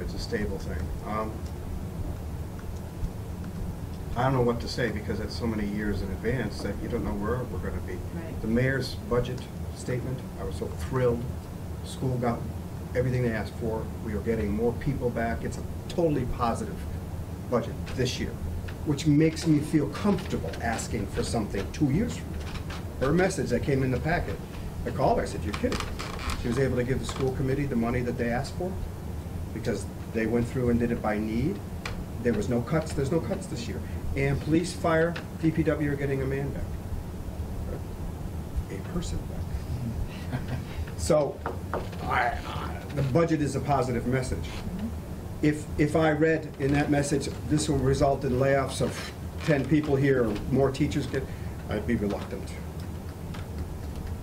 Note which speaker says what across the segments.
Speaker 1: it's a stable thing. Um, I don't know what to say because it's so many years in advance that you don't know where we're gonna be.
Speaker 2: Right.
Speaker 1: The mayor's budget statement, I was so thrilled. School got everything they asked for. We are getting more people back. It's a totally positive budget this year, which makes me feel comfortable asking for something two years from now. Her message that came in the packet, I called her, I said, you're kidding. She was able to give the school committee the money that they asked for because they went through and did it by need. There was no cuts, there's no cuts this year. And police, fire, DPW are getting a man back. A person back. So, I, I- the budget is a positive message. If, if I read in that message, this will result in layoffs of 10 people here, or more teachers get, I'd be reluctant.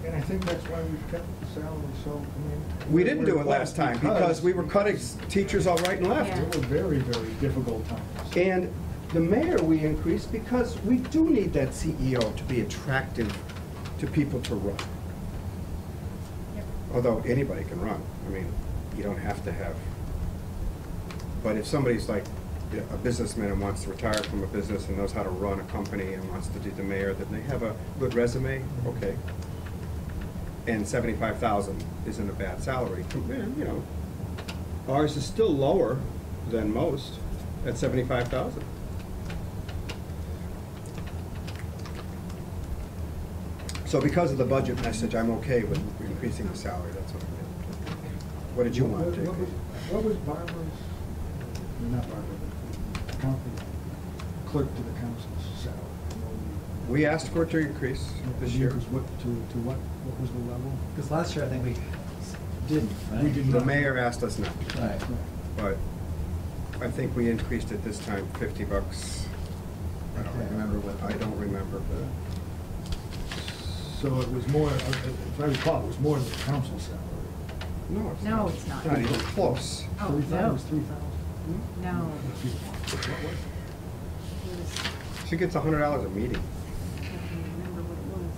Speaker 3: And I think that's why we've kept the salary so, I mean.
Speaker 1: We didn't do it last time because we were cutting teachers all right and left.
Speaker 2: Yeah.
Speaker 3: It were very, very difficult times.
Speaker 1: And the mayor we increased because we do need that CEO to be attractive to people to run.
Speaker 2: Yep.
Speaker 1: Although anybody can run, I mean, you don't have to have. But if somebody's like a businessman and wants to retire from a business and knows how to run a company and wants to do the mayor, then they have a good resume, okay. And seventy-five thousand isn't a bad salary, com- eh, you know. Ours is still lower than most at seventy-five thousand. So because of the budget message, I'm okay with increasing the salary, that's what I did. What did you want to
Speaker 3: What-
Speaker 1: do?
Speaker 3: what was- What was Barbara's, or not Barbara, but the county clerk to the council's salary?
Speaker 1: We asked for it to increase this year.
Speaker 3: It was what, to, to what, what was the level?
Speaker 4: Because last year, I think we didn't, right?
Speaker 3: We did
Speaker 1: The
Speaker 3: not.
Speaker 1: mayor asked us not to,
Speaker 4: Right.
Speaker 1: but I think we increased it this time fifty bucks. I don't
Speaker 4: Okay, I remember what-
Speaker 1: I don't remember, but
Speaker 3: So it was more, if I recall, it was more than the council's salary.
Speaker 1: no, it's
Speaker 2: No,
Speaker 1: not.
Speaker 2: it's not.
Speaker 1: Not even close.
Speaker 2: Oh,
Speaker 3: Three thou-
Speaker 2: no.
Speaker 3: It was three thousand.
Speaker 1: Hmm?
Speaker 2: No.
Speaker 3: What was it?
Speaker 2: It was-
Speaker 1: She gets a hundred dollars a meeting.
Speaker 2: I can't remember what it was.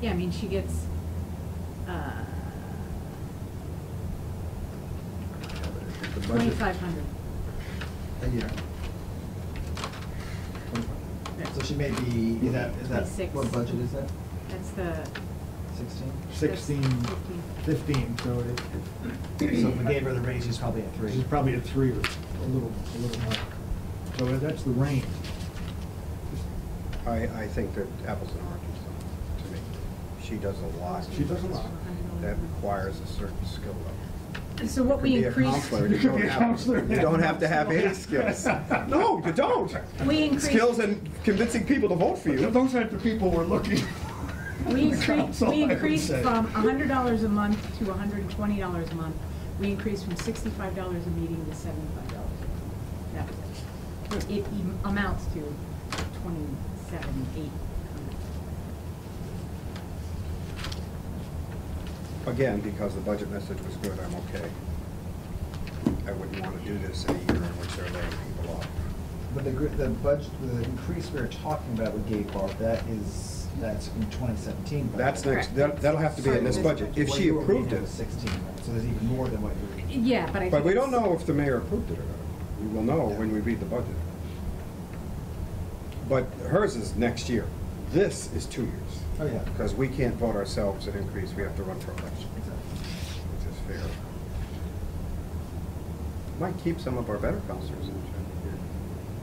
Speaker 2: Yeah, I mean, she gets, uh,
Speaker 1: The budget-
Speaker 2: twenty-five hundred.
Speaker 4: A year. So she may be, is that, is that,
Speaker 2: Twenty-six.
Speaker 4: what budget is that?
Speaker 2: That's the.
Speaker 4: Sixteen?
Speaker 3: Sixteen,
Speaker 2: that's Fifteen.
Speaker 3: fifteen, so it, it-
Speaker 4: So if we gave her the raise, she's probably at
Speaker 3: This
Speaker 4: three.
Speaker 3: is probably a three or a little, a little more. So that's the range.
Speaker 1: I, I think that apples and oranges though, to me. She does a lot.
Speaker 3: She does a lot.
Speaker 1: That requires a certain skill level.
Speaker 2: So what we
Speaker 1: Could be a
Speaker 2: increased,
Speaker 1: counselor. You don't
Speaker 3: Be a
Speaker 1: have-
Speaker 3: counselor.
Speaker 1: You don't have to have any skills. No, you don't.
Speaker 2: we increased.
Speaker 1: Skills and convincing people to vote for you.
Speaker 3: Those aren't the people we're looking.
Speaker 2: We increased,
Speaker 3: Council, I
Speaker 2: we
Speaker 3: would
Speaker 2: increased
Speaker 3: say.
Speaker 2: from hundred dollars a month to hundred and twenty dollars a month. We increased from sixty-five dollars a meeting to seventy-five dollars a month. That was it. It em- amounts to twenty-seven, eight.
Speaker 1: Again, because the budget message was good, I'm okay. I wouldn't want to do this in a year in which they're laying people off.
Speaker 4: But the, gr- the budget, the increase we were talking about with Gay Bar, that is, that's from twenty seventeen.
Speaker 1: That's next, that- that'll have to be in this budget, if she approved it.
Speaker 4: Sixteen, right? so there's even more than what you were.
Speaker 2: Yeah, but I think.
Speaker 1: But we don't
Speaker 2: it's-
Speaker 1: know if the mayor approved it or not. We will know when we read the budget. But hers is next year. This is two years,
Speaker 4: Oh, yeah.
Speaker 1: because we can't vote ourselves an increase, we have to run for election,
Speaker 4: Exactly.
Speaker 1: which is fair. Might keep some of our better counselors in here.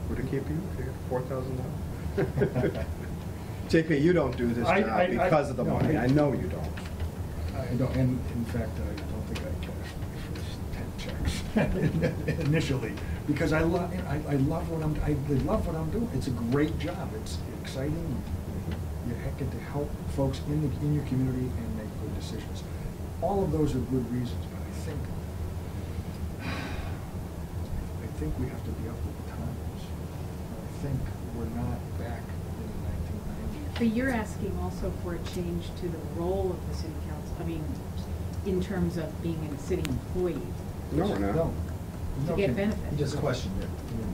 Speaker 1: Would it keep you if you got four thousand dollars? JP, you don't do this
Speaker 3: I- I- I-
Speaker 1: job because of the
Speaker 3: no,
Speaker 1: money.
Speaker 3: I-
Speaker 1: I know you don't.
Speaker 3: I don't, and in fact, I don't think I cashed my first ten checks initially, because I love, I, I love what I'm, I love what I'm doing. It's a great job. It's exciting. You ha- get to help folks in the, in your community and make good decisions. All of those are good reasons, but I think, I think we have to be up with the times. I think we're not back in the nineteen nineties.
Speaker 2: But you're asking also for a change to the role of the city council, I mean, in terms of being a city employee
Speaker 1: No, we're not.
Speaker 3: No.
Speaker 2: to get
Speaker 3: No, Kim.
Speaker 4: You
Speaker 2: benefits.
Speaker 4: just questioned it.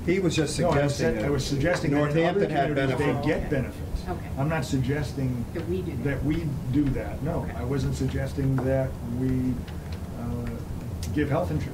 Speaker 1: He was just
Speaker 3: No, I was
Speaker 1: suggesting
Speaker 3: sa-
Speaker 1: that.
Speaker 3: I was suggesting that in other
Speaker 1: Northampton had
Speaker 3: communities, they
Speaker 1: benefits.
Speaker 3: get benefits.
Speaker 2: Okay.
Speaker 3: I'm not suggesting
Speaker 2: That we do that.
Speaker 3: that we do that, no.
Speaker 2: Okay.
Speaker 3: I wasn't suggesting that we uh, give health insurance,